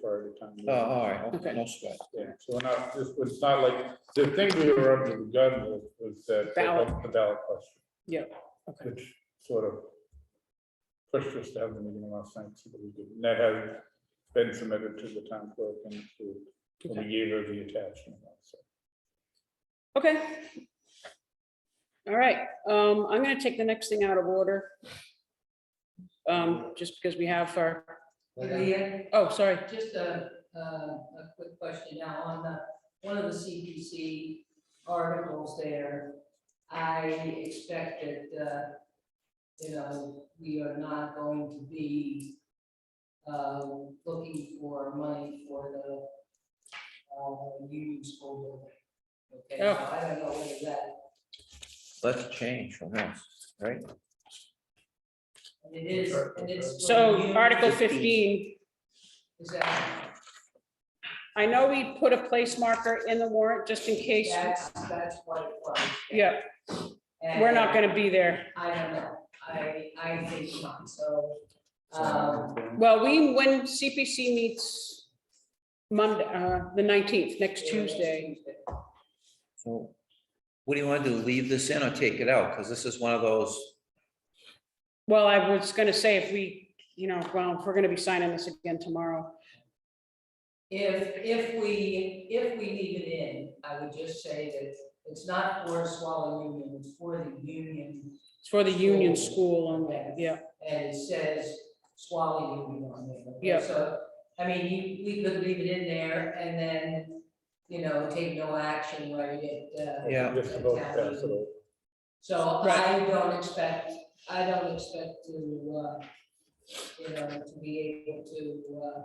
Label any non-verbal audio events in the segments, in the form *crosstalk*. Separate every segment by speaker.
Speaker 1: prior to time. meeting.
Speaker 2: Oh, all right, okay,
Speaker 3: Okay.
Speaker 2: no sweat.
Speaker 1: Yeah, so we're not, this was not like, the thing we were under the gun with was that. they
Speaker 3: Ballot.
Speaker 1: left The ballot question,
Speaker 3: okay.
Speaker 1: which sort of pushed us to have the meeting last night, so that we could, and that has been submitted to the town clerk and to, and we gave her the attachment, so.
Speaker 3: Okay. All right, um, I'm gonna take the next thing out of order. Um, just because we have our,
Speaker 4: Leah,
Speaker 3: oh, sorry,
Speaker 4: just a, a, a quick question now on the, one of the CPC articles there. I expect that, uh, you know, we are not going to be, uh, looking for money for the, uh, union school building. Okay,
Speaker 3: Oh.
Speaker 4: so I don't know whether that,
Speaker 2: Let's change from this, right?
Speaker 4: and it is, and it's.
Speaker 3: so Article fifteen,
Speaker 4: Is that,
Speaker 3: I know we put a place marker in the warrant just in case,
Speaker 4: that's, that's what it was.
Speaker 3: yeah, we're not gonna be there.
Speaker 4: I don't know, I, I think not, so, um,
Speaker 3: Well, we, when CPC meets Monday, uh, the nineteenth, next Tuesday,
Speaker 2: So What do you want to do, leave this in or take it out? Because this is one of those,
Speaker 3: well, I was gonna say if we, you know, well, if we're gonna be signing this again tomorrow.
Speaker 4: If, if we, if we leave it in, I would just say that it's not for Swallow Union, it's for the union,
Speaker 3: It's for the union school only, yeah,
Speaker 4: and it says Swallow Union on there. okay?
Speaker 3: Yeah.
Speaker 4: So, I mean, you, we could leave it in there and then, you know, take no action where you get, uh,
Speaker 2: yeah,
Speaker 1: Just about to pass it over.
Speaker 4: So I
Speaker 3: Right.
Speaker 4: don't expect, I don't expect to, uh, you know, to be able to, uh,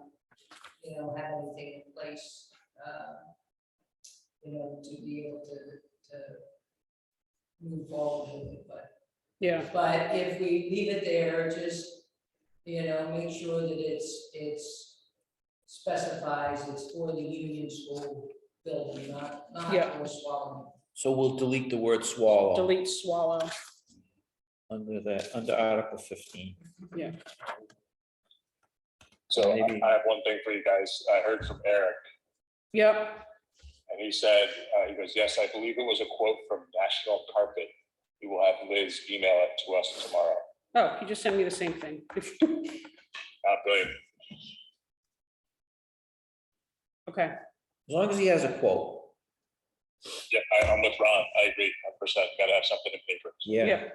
Speaker 4: you know, have anything in place, uh, you know, to be able to, to move forward with it, but,
Speaker 3: yeah.
Speaker 4: but if we leave it there, just, you know, make sure that it's, it's specifies it's for the union school building, not, not
Speaker 3: Yeah.
Speaker 4: for swallowing.
Speaker 2: so we'll delete the word swallow
Speaker 3: delete swallow.
Speaker 2: under that, under Article fifteen.
Speaker 5: So I
Speaker 2: Maybe.
Speaker 5: I have one thing for you guys. I heard from Eric
Speaker 3: Yep,
Speaker 5: and he said, uh, he goes, yes, I believe it was a quote from National Carpet. We will have Liz email it to us tomorrow.
Speaker 3: oh, you just sent me the same thing. *laughs*
Speaker 5: Uh, brilliant.
Speaker 3: Okay,
Speaker 2: As long as he has a quote,
Speaker 5: Yeah, I- I'm with Ron. I agree, hundred percent. Gotta have something in paper.
Speaker 2: yeah.
Speaker 3: yeah,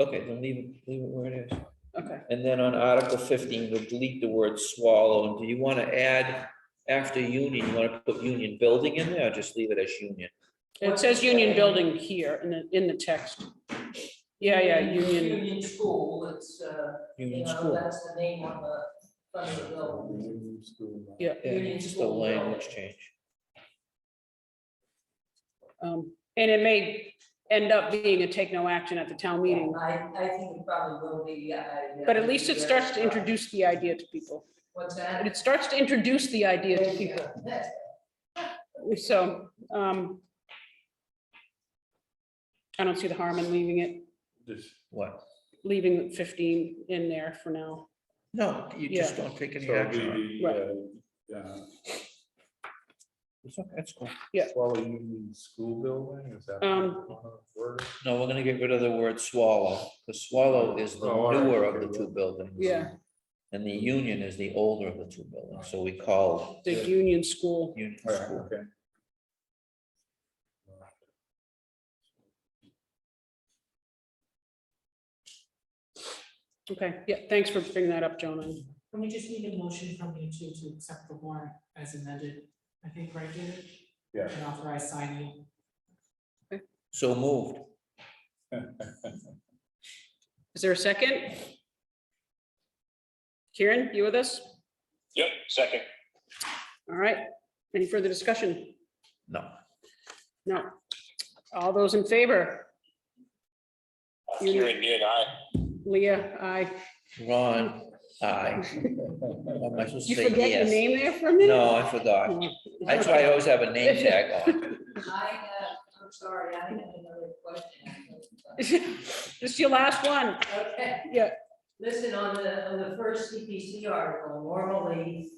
Speaker 2: Okay, then leave it, leave it where it is.
Speaker 3: okay.
Speaker 2: And then on Article fifteen, we'll delete the word swallow. And do you want to add after union, you want to put union building in there or just leave it as union?
Speaker 3: It says union building here in the, in the text. Yeah, yeah, union,
Speaker 4: Union school, it's, uh, You
Speaker 2: Union
Speaker 4: know,
Speaker 2: school.
Speaker 4: that's the name on the front of the building.
Speaker 3: yeah.
Speaker 2: Yeah,
Speaker 4: Union
Speaker 2: just a
Speaker 4: school building.
Speaker 2: language change.
Speaker 3: Um, and it may end up being a take no action at the town meeting,
Speaker 4: I, I think it probably will be, I.
Speaker 3: but at least it starts to introduce the idea to people.
Speaker 4: What's
Speaker 3: And
Speaker 4: that?
Speaker 3: It starts to introduce the idea to people,
Speaker 4: That's-
Speaker 3: so, um, I don't see the harm in leaving it,
Speaker 1: Just-
Speaker 2: What?
Speaker 3: leaving fifteen in there for now.
Speaker 2: No, you just don't take
Speaker 1: So
Speaker 2: any
Speaker 1: it'll
Speaker 2: action. on it.
Speaker 1: be the, uh, uh,
Speaker 2: It's okay, That's cool.
Speaker 1: Swallow Union School Building, is that?
Speaker 3: Um,
Speaker 1: one of the words?
Speaker 2: No, we're gonna get rid of the word swallow. The swallow is the
Speaker 1: Oh, all right,
Speaker 2: newer of
Speaker 1: okay,
Speaker 2: the
Speaker 1: yeah.
Speaker 2: two buildings.
Speaker 3: Yeah.
Speaker 2: And the union is the older of the two buildings, so we call
Speaker 3: The union school.
Speaker 2: union
Speaker 1: All right,
Speaker 2: school.
Speaker 1: okay.
Speaker 3: Okay, yeah, thanks for bringing that up, Jonah.
Speaker 6: And we just need a motion from you two to accept the warrant as amended, I think, right, David?
Speaker 1: Yeah.
Speaker 6: And authorize signing.
Speaker 2: So moved.
Speaker 3: Is there a second? Kieran, you with us?
Speaker 5: Yep, second.
Speaker 3: All right. Any further discussion?
Speaker 2: No.
Speaker 3: No. All those in favor?
Speaker 5: Uh,
Speaker 3: Union.
Speaker 5: Kieran, you and I,
Speaker 3: Leah, I,
Speaker 2: Ron,
Speaker 1: *laughs*
Speaker 2: aye. What am I supposed to
Speaker 3: you
Speaker 2: say?
Speaker 3: forget your
Speaker 2: Yes.
Speaker 3: name there for a minute?
Speaker 2: No, I forgot.
Speaker 3: *laughs*
Speaker 2: That's why I always have a name tag on.
Speaker 4: I have, uh, I'm sorry, I have another question.
Speaker 3: This is your last one.
Speaker 4: Okay.
Speaker 3: Yeah.
Speaker 4: Listen, on the, on the first CPC article, normally